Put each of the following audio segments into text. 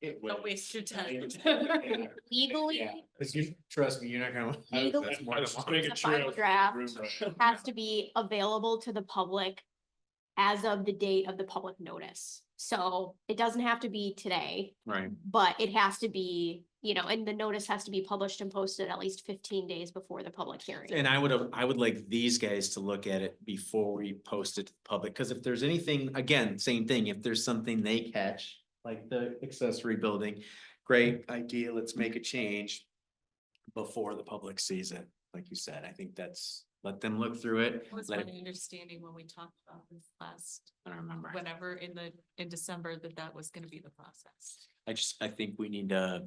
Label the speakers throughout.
Speaker 1: It
Speaker 2: Don't
Speaker 1: will.
Speaker 2: waste your time.
Speaker 1: Yeah.
Speaker 3: legally,
Speaker 1: Yeah. Cause you, trust me, you're not gonna.
Speaker 3: I was-
Speaker 1: That's
Speaker 3: that's
Speaker 1: why I
Speaker 4: Just
Speaker 1: wanted
Speaker 4: make
Speaker 1: to
Speaker 3: the
Speaker 4: it true.
Speaker 3: final draft
Speaker 1: room rush.
Speaker 3: has to be available to the public as of the date of the public notice. So it doesn't have to be today,
Speaker 1: Right,
Speaker 5: Mm-hmm.
Speaker 3: but it has to be, you know, and the notice has to be published and posted at least fifteen days before the public hearing.
Speaker 5: And I would, I would like these guys to look at it before we post it to the public, because if there's anything, again, same thing, if there's something they catch. Like the accessory building, great idea, let's make a change. Before the public sees it, like you said, I think that's, let them look through it.
Speaker 2: That was my
Speaker 5: let it-
Speaker 2: understanding when we talked about this last,
Speaker 5: I don't remember.
Speaker 2: whenever in the, in December, that that was gonna be the process.
Speaker 5: I just, I think we need to,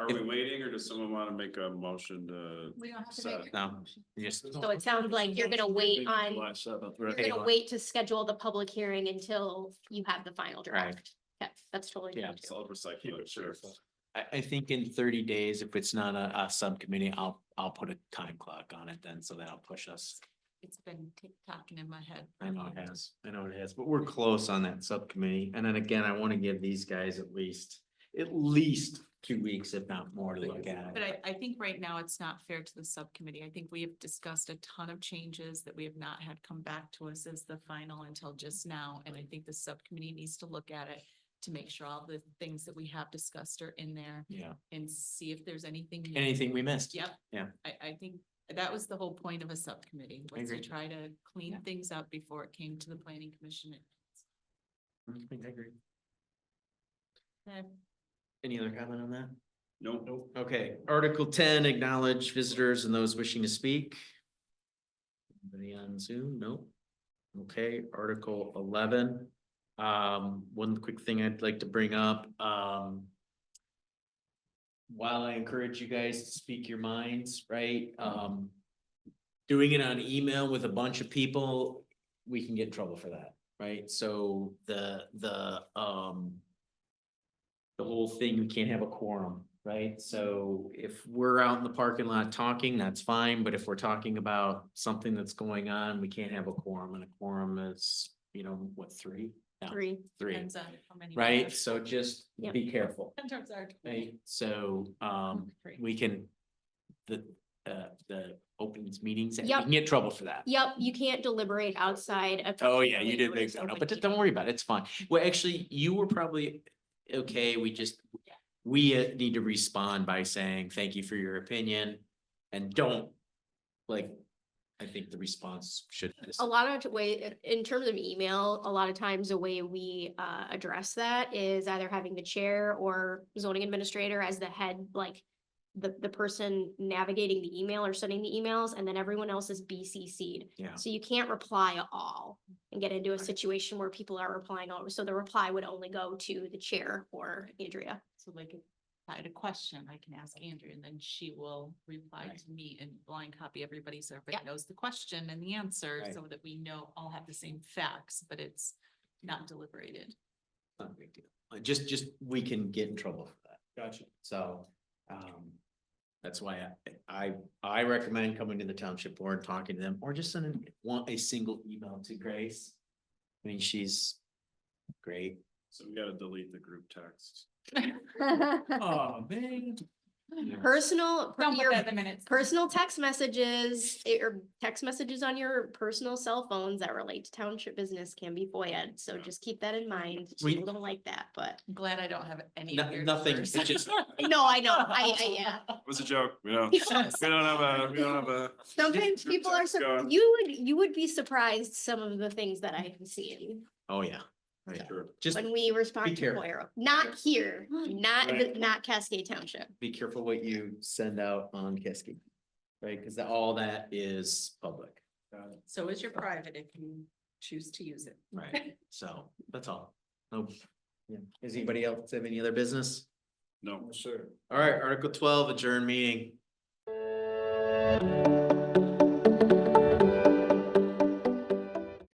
Speaker 4: Are we waiting or does someone want to make a motion to?
Speaker 2: We don't have
Speaker 4: to make
Speaker 5: no, um, just,
Speaker 3: So it sounds like you're gonna wait on, you're gonna wait to schedule the public hearing until you have the final
Speaker 5: Right.
Speaker 3: draft. Yeah, that's totally.
Speaker 5: Yeah,
Speaker 3: fine too.
Speaker 4: Solid
Speaker 1: Keep
Speaker 4: recycling,
Speaker 1: it
Speaker 4: sure.
Speaker 1: short.
Speaker 5: I, I think in thirty days, if it's not a, a subcommittee, I'll, I'll put a time clock on it then, so that'll push us.
Speaker 2: It's been tick-tocking in my head.
Speaker 5: I know it has, I know it has, but we're close on that subcommittee, and then again, I wanna give these guys at least, at least two weeks, if not more, to look at
Speaker 2: But
Speaker 5: it.
Speaker 2: I, I think right now it's not fair to the subcommittee. I think we have discussed a ton of changes that we have not had come back to us as the final until just now. And I think the subcommittee needs to look at it to make sure all the things that we have discussed are in there
Speaker 5: Yeah,
Speaker 2: and see if there's anything. new.
Speaker 5: anything we missed?
Speaker 2: Yep.
Speaker 5: Yeah.
Speaker 2: I, I think that was the whole point of a subcommittee, was to
Speaker 5: agree.
Speaker 2: try to clean
Speaker 5: Yeah.
Speaker 2: things up before it came to the planning commission.
Speaker 5: I agree.
Speaker 2: Okay.
Speaker 5: Any other comment on that?
Speaker 4: Nope, nope.
Speaker 5: Okay, Article ten, acknowledge visitors and those wishing to speak. Anybody on Zoom? No. Okay, Article eleven. Um, one quick thing I'd like to bring up, um. While I encourage you guys to speak your minds, right, um. Doing it on email with a bunch of people, we can get in trouble for that, right? So the, the, um the whole thing, we can't have a quorum, right? So if we're out in the parking lot talking, that's fine, but if we're talking about something that's going on, we can't have a quorum, and a quorum is, you know, what, three? Yeah,
Speaker 3: Three.
Speaker 5: Three,
Speaker 2: Depends on how many.
Speaker 5: right?
Speaker 2: members.
Speaker 5: So just
Speaker 3: Yep.
Speaker 5: be careful,
Speaker 2: Sometimes our.
Speaker 5: right? So, um,
Speaker 2: Three.
Speaker 5: we can, the, uh, the opens meetings, and we
Speaker 3: Yep.
Speaker 5: can get in trouble for that.
Speaker 3: Yep, you can't deliberate outside of.
Speaker 5: Oh, yeah, you
Speaker 3: public
Speaker 5: did make
Speaker 3: notice
Speaker 5: that up,
Speaker 3: open
Speaker 5: but d-
Speaker 3: meeting.
Speaker 5: don't worry about it, it's fine. Well, actually, you were probably, okay, we just, we uh, need to respond by saying, thank you for your opinion, and don't, like, I think the response should.
Speaker 3: a lot of way, in terms of email, a lot of times the way we uh address that is either having the chair or zoning administrator as the head, like. The the person navigating the email or sending the emails and then everyone else is BCC'd.
Speaker 5: Yeah.
Speaker 3: So you can't reply all and get into a situation where people are replying all, so the reply would only go to the chair or Andrea.
Speaker 2: So like, if I had a question, I can ask Andrea, and then she will reply
Speaker 5: Right.
Speaker 2: to me and blind copy everybody, so
Speaker 3: Yep.
Speaker 2: everybody knows the question and the answer,
Speaker 5: Right.
Speaker 2: so that we know, all have the same facts, but it's not deliberated.
Speaker 5: Not a big deal. Uh, Just, just, we can get in trouble for that. Gotcha. So, um, that's why I, I, I recommend coming to the township board, talking to them, or just sending one, a single email to Grace. I mean, she's great.
Speaker 4: So we gotta delete the group text.
Speaker 5: Oh, man.
Speaker 3: Personal, per-
Speaker 2: Don't put
Speaker 3: your
Speaker 2: that in the minutes.
Speaker 3: personal text messages eh, or text messages on your personal cell phones that relate to township business can be FOIA'd. So
Speaker 4: Yeah.
Speaker 3: just keep that in mind.
Speaker 5: We-
Speaker 3: People don't like that, but
Speaker 2: I'm Glad I don't have any.
Speaker 5: No-
Speaker 2: weird
Speaker 5: nothing,
Speaker 2: numbers.
Speaker 5: it's just-
Speaker 3: no, I know. I, I, yeah.
Speaker 4: It was a joke, we don't, we
Speaker 3: People-
Speaker 4: don't have a, we don't have a.
Speaker 3: Sometimes people are,
Speaker 4: Keep going.
Speaker 3: sur- you would, you would be surprised some of the things that I have seen
Speaker 5: Oh, yeah.
Speaker 4: Yeah, sure.
Speaker 5: Just
Speaker 3: when we respond to
Speaker 5: careful.
Speaker 3: FOIA. Not here, not,
Speaker 4: Right.
Speaker 3: not Cascade Township.
Speaker 5: be careful what you send out on Kiski. Right, cause all that is public.
Speaker 2: So is your private if you choose to use it.
Speaker 5: Right. So, that's all. Nope. Yeah. Does anybody else have any other business?
Speaker 4: No. Sure.
Speaker 5: All right, Article twelve, adjourn meeting.